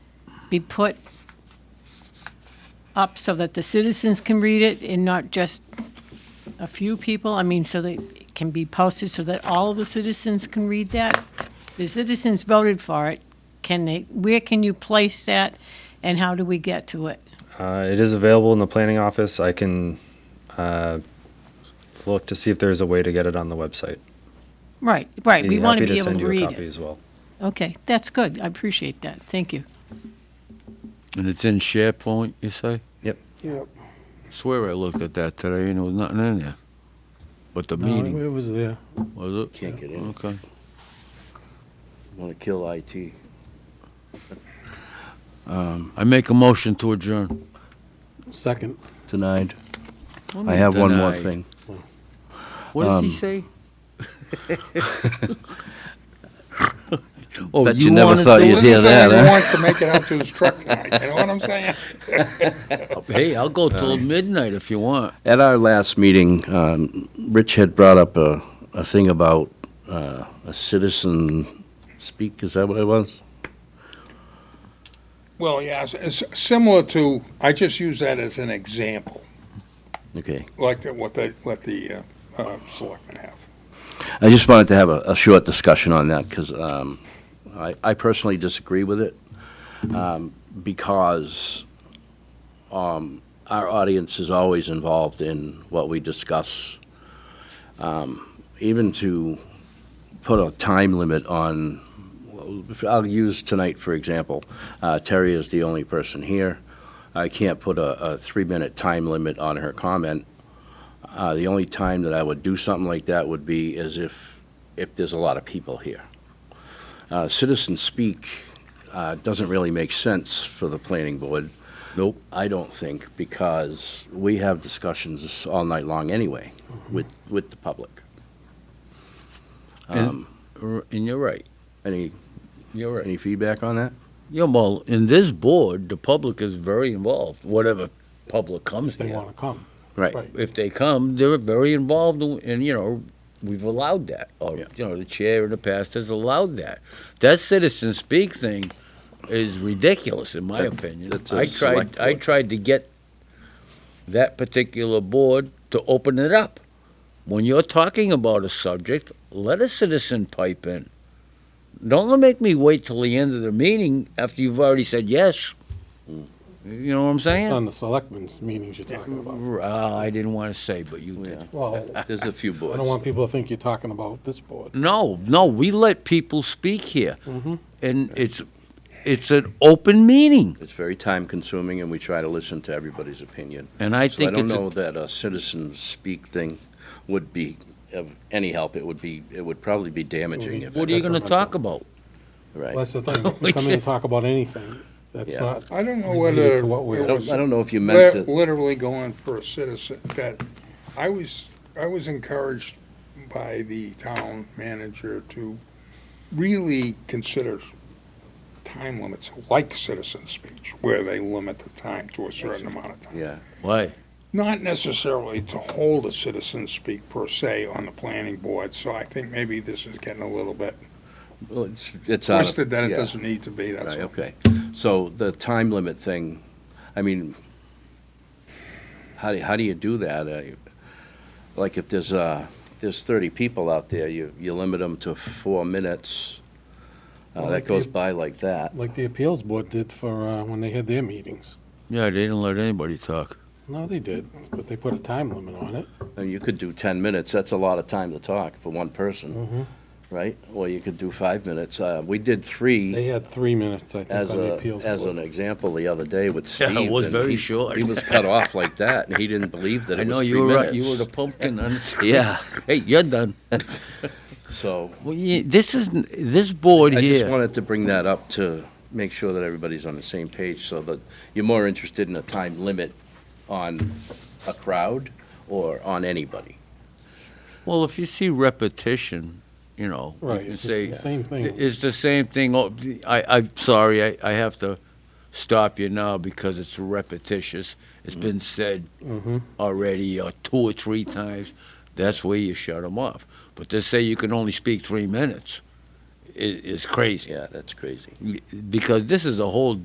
be put up so that the citizens can read it and not just a few people? I mean, so that it can be posted so that all of the citizens can read that? The citizens voted for it. Can they, where can you place that and how do we get to it? Uh, it is available in the planning office. I can uh, look to see if there's a way to get it on the website. Right, right. We want to happy be able send to you a read copy it. as well. Okay, that's good. I appreciate that. Thank you. And it's in SharePoint, you say? Yep. Yep. Swear I looked at that today and there was nothing in there. But the No, meeting, It was there. was it? Can't get in. Okay. Want to kill IT. I make a motion to adjourn. Second. Denied. I have one more Denied. thing. What does he Um, say? Oh, Bet you never thought you'd Well, hear listen, that, He huh? wants to make it out to his truck tonight, you know what I'm saying? Hey, I'll go Uh, till midnight if you want. At our last meeting, um, Rich had brought up a, a thing about uh, a citizen speak, is that what it was? Well, yeah, it's- it's similar to, I just use that as an example, Okay. like the- what the, what the uh, uh, selectmen have. I just wanted to have a, a short discussion on that because um, I, I personally disagree with it um, because um, our audience is always involved in what we discuss. Um, even to put a time limit on, I'll use tonight for example. Uh, Terry is the only person here. I can't put a, a three minute time limit on her comment. Uh, the only time that I would do something like that would be as if, if there's a lot of people here. Uh, citizen speak, uh, doesn't really make sense for the planning board. Nope. I don't think, because we have discussions all night long anyway with, with the public. And, r- and you're right. Any, You're right. any feedback on that? Yeah, well, in this board, the public is very involved, whatever public comes They here. want to come. Right. Right. if they come, they're very involved, in- and you know, we've allowed that. Or Yeah. you know, the chair in the past has allowed that. That citizen speak thing is ridiculous, in my That- opinion. that's a I tried. select I board. tried to get that particular board to open it up. When you're talking about a subject, let a citizen pipe in. Don't make me wait till the end of the meeting after you've already said yes. Mm. You know what I'm It's on saying? the selectmen's meetings you're talking about. Uh, I didn't want to say, but you did. Well, There's a few boards. I don't want people to think you're talking about this board. No, no, we let people speak here, and it's it's an open meeting, It's very time consuming and we try to listen to everybody's opinion. and I So I think don't it's a- know that a citizen speak thing would be of any help. It would be, it would probably be damaging if. what are you going to talk about? Right. That's the thing. You come in and talk about anything. That's Yeah. not, I don't know Related whether. to what we- it I don't, was I don't know if you meant lit- to. Literally going for a citizen, that, I was, I was encouraged by the town manager to really consider time limits like citizen speech, where they limit the time to a certain amount of time. Yeah, Why? not necessarily to hold a citizen speak per se on the planning board, so I think maybe this is getting a little bit well, it's, it's out of- twisted that it yeah, doesn't need to be, Right, that's all. okay. So the time limit thing, I mean, how do, how do you do that? Uh, Like if there's, uh, there's thirty people out there, you, you limit them to four minutes. Uh, Well, that like goes you- by like that. like the appeals board did for, uh, when they had their meetings. Yeah, they didn't let anybody talk. No, they did, but they put a time limit on it. And you could do ten minutes, that's a lot of time to talk for one person, right? Or you could do five minutes. Uh, we did three. Mm-hmm. They had three minutes, I think, As on the a, appeals as an board. example, the other day with Yeah, Steve. it was and very he- short. He was cut off like that, and he didn't believe that I it know was three you were right. You were minutes. the pumpkin. on the- Yeah, Hey, you're done. so Well, yeah, this is this board I just here. wanted to bring that up to make sure that everybody's on the same page, so that you're more interested in a time limit on a crowd or on anybody. well, if you see repetition, you know, Right, you can it's say the same thing. It's the same thing. o- I, I'm sorry, I, I have to stop you now because it's repetitious. It's been said Mm-hmm. already uh, two or three times. That's where you shut them off. But to say you can only speak three minutes i- is crazy Yeah, that's crazy. because this is a whole